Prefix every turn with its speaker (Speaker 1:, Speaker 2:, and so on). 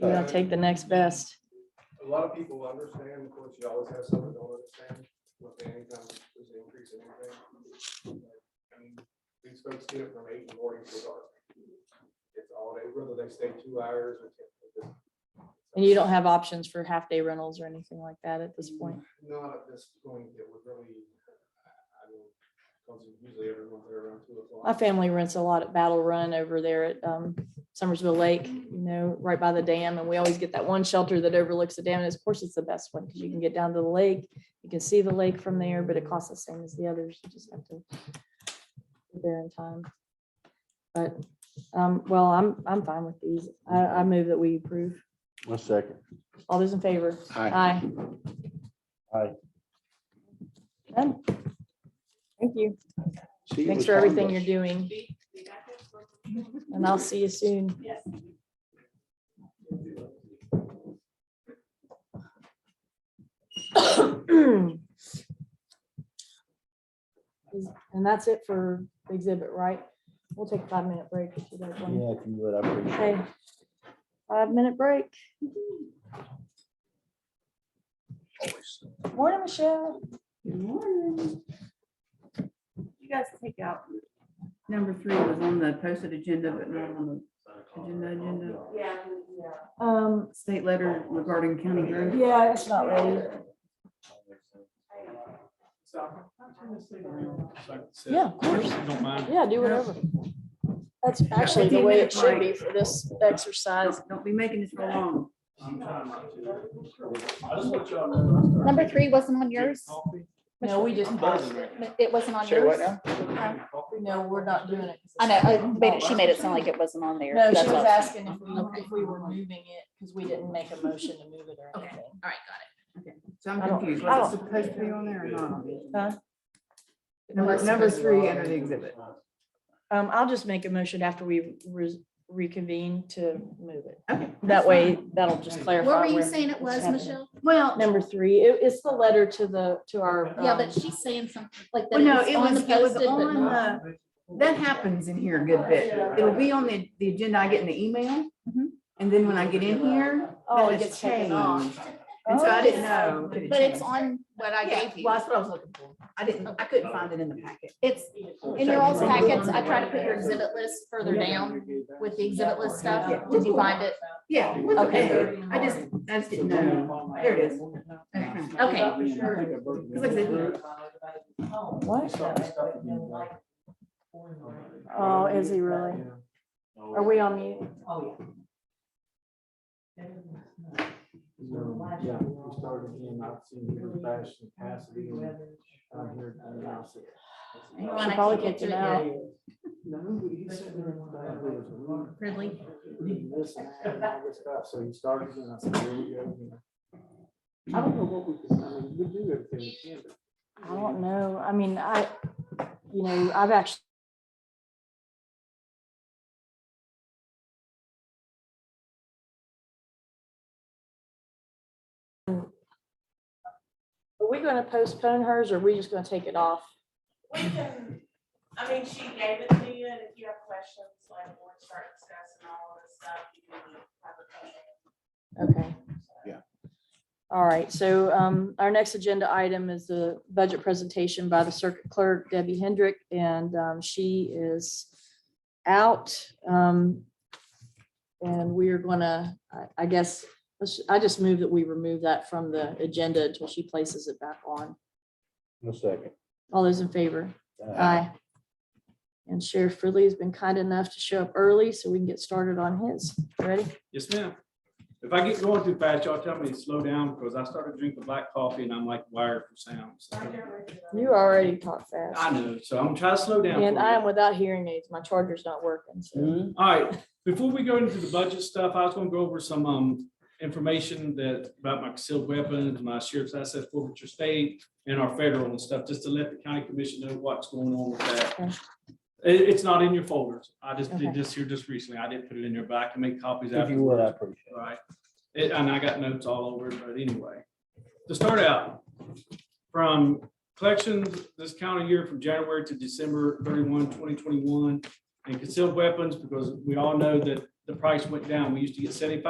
Speaker 1: You know, take the next best.
Speaker 2: A lot of people understand, of course, you always have some that don't understand what the income is increasing. And these folks get it from eight in the morning to dark. It's all day, whether they stay two hours or ten.
Speaker 1: And you don't have options for half day rentals or anything like that at this point.
Speaker 2: Not at this point, it would really, I mean, because usually everyone's there around two o'clock.
Speaker 1: My family rents a lot at Battle Run over there at um, Summersville Lake, you know, right by the dam. And we always get that one shelter that overlooks the dam. And of course, it's the best one because you can get down to the lake. You can see the lake from there, but it costs the same as the others. You just have to be there in time. But, um, well, I'm, I'm fine with these. I, I move that we approve.
Speaker 3: One second.
Speaker 1: All those in favor?
Speaker 3: Hi.
Speaker 1: Aye.
Speaker 3: Aye.
Speaker 1: Done. Thank you.
Speaker 3: See, it
Speaker 1: Thanks
Speaker 3: was
Speaker 1: for everything you're
Speaker 3: harmless.
Speaker 1: doing. And I'll see you soon. And that's it for the exhibit, right? We'll take a five-minute break. if you guys want.
Speaker 3: Yeah, if you would, I appreciate it.
Speaker 1: Okay. Five-minute break.
Speaker 3: Always.
Speaker 1: Morning, Michelle.
Speaker 4: Good morning. You guys take out, number three was on the posted agenda, but not on the agenda, agenda.
Speaker 1: Um,
Speaker 4: State letter regarding county road.
Speaker 1: yeah, it's not ready. Yeah, of course.
Speaker 2: Don't mind.
Speaker 1: Yeah, do whatever. That's actually the way it should be for this exercise.
Speaker 4: Don't- Don't be making this go long.
Speaker 5: Number three wasn't on yours?
Speaker 1: No, we just passed it.
Speaker 5: It wasn't on yours?
Speaker 1: No, we're not doing it.
Speaker 5: I know, I made it- she made it sound like it wasn't on there.
Speaker 1: No, she
Speaker 5: That's
Speaker 1: was
Speaker 5: all.
Speaker 1: asking if we, if we were moving it, because we didn't make a motion to move it or anything.
Speaker 4: So I'm
Speaker 1: I don't-
Speaker 4: confused.
Speaker 1: I
Speaker 4: Was it supposed to be on there or not? on there?
Speaker 1: Huh?
Speaker 4: Uh, Number, number three under the exhibit.
Speaker 1: Um, I'll just make a motion after we re- reconvene to move it.
Speaker 4: Okay.
Speaker 1: That way, that'll just clarify.
Speaker 6: What were you
Speaker 1: where
Speaker 6: saying it
Speaker 1: it's
Speaker 6: was,
Speaker 1: happening.
Speaker 6: Michelle?
Speaker 4: Well,
Speaker 1: Number three, it- it's the letter to the, to our.
Speaker 6: Yeah,
Speaker 1: um,
Speaker 6: but she's saying something like that.
Speaker 4: well, no,
Speaker 6: it's
Speaker 4: it
Speaker 6: on
Speaker 4: was,
Speaker 6: the
Speaker 4: it was
Speaker 6: posted, but
Speaker 4: on
Speaker 6: not-
Speaker 4: the, that happens in here a good bit. It'll be on the, the agenda I get in the email. And then when I get in here,
Speaker 1: Oh,
Speaker 4: that
Speaker 1: it
Speaker 4: has
Speaker 1: gets taken off.
Speaker 4: changed. And so I didn't know. did it
Speaker 5: But it's
Speaker 4: change?
Speaker 5: on what I
Speaker 4: Yeah,
Speaker 5: gave
Speaker 4: Oh. well,
Speaker 5: you.
Speaker 4: that's what I was looking for. I didn't, I couldn't find it in the packet.
Speaker 5: It's
Speaker 1: Oh,
Speaker 5: in your all's packets. I tried to put your exhibit list further down with the exhibit list stuff. Did you find it?
Speaker 4: Yeah. it was
Speaker 5: Okay.
Speaker 4: okay. I just, I just didn't know. There it is.
Speaker 5: Okay.
Speaker 1: What? Oh, is he really? Are we on mute?
Speaker 2: Yeah, we started again, I've seen your fashion capacity and I'm here to announce it.
Speaker 5: You wanna
Speaker 1: Probably
Speaker 5: keep it
Speaker 1: kicked him
Speaker 5: to it?
Speaker 1: out.
Speaker 2: No, he said there was a bad word, it was
Speaker 5: Ridley.
Speaker 2: a word, this and that and all this stuff. So he started and I said, here we go. again. I don't know what we can, I mean, we do everything we can. but-
Speaker 1: I don't know. I mean, I, you know, I've actually. Are we gonna postpone hers or are we just gonna take it off?
Speaker 7: We can, I mean, she gave it to you, and if you have questions, like, we'll start discussing all of this stuff. you can have a conversation.
Speaker 1: Okay.
Speaker 3: Yeah.
Speaker 1: All right, so um, our next agenda item is the budget presentation by the circuit clerk Debbie Hendrick, and um, she is out. um, And we are gonna, I- I guess, let's- I just move that we remove that from the agenda until she places it back on.
Speaker 3: One second. Uh,
Speaker 1: All those in favor? Aye. And Sheriff Fridley has been kind enough to show up early so we can get started on his. Ready?
Speaker 8: Yes, ma'am. If I get going too fast, y'all tell me to slow down because I started drinking black coffee and I'm like wired for sound. so.
Speaker 1: You already talked fast.
Speaker 8: I know, so I'm trying to slow down.
Speaker 1: And
Speaker 8: for
Speaker 1: I
Speaker 8: you.
Speaker 1: am without hearing aids. My charger's not working, so.
Speaker 8: All right, before we go into the budget stuff, I was gonna go over some um information that about my concealed weapons, my sheriff's assets forfeiture state and our federal and stuff, just to let the county commission know what's going on with
Speaker 1: Okay.
Speaker 8: that. It- it's not in your folders. I just
Speaker 1: Okay.
Speaker 8: did this here just recently. I didn't put it in there, but I can make copies
Speaker 3: If
Speaker 8: after.
Speaker 3: you would, I appreciate it.
Speaker 8: Right. It- and I got notes all over, it, but anyway, to start out, from collections this calendar year from January to December 31, 2021, and concealed weapons, because we all know that the price went down. We used to get seventy-five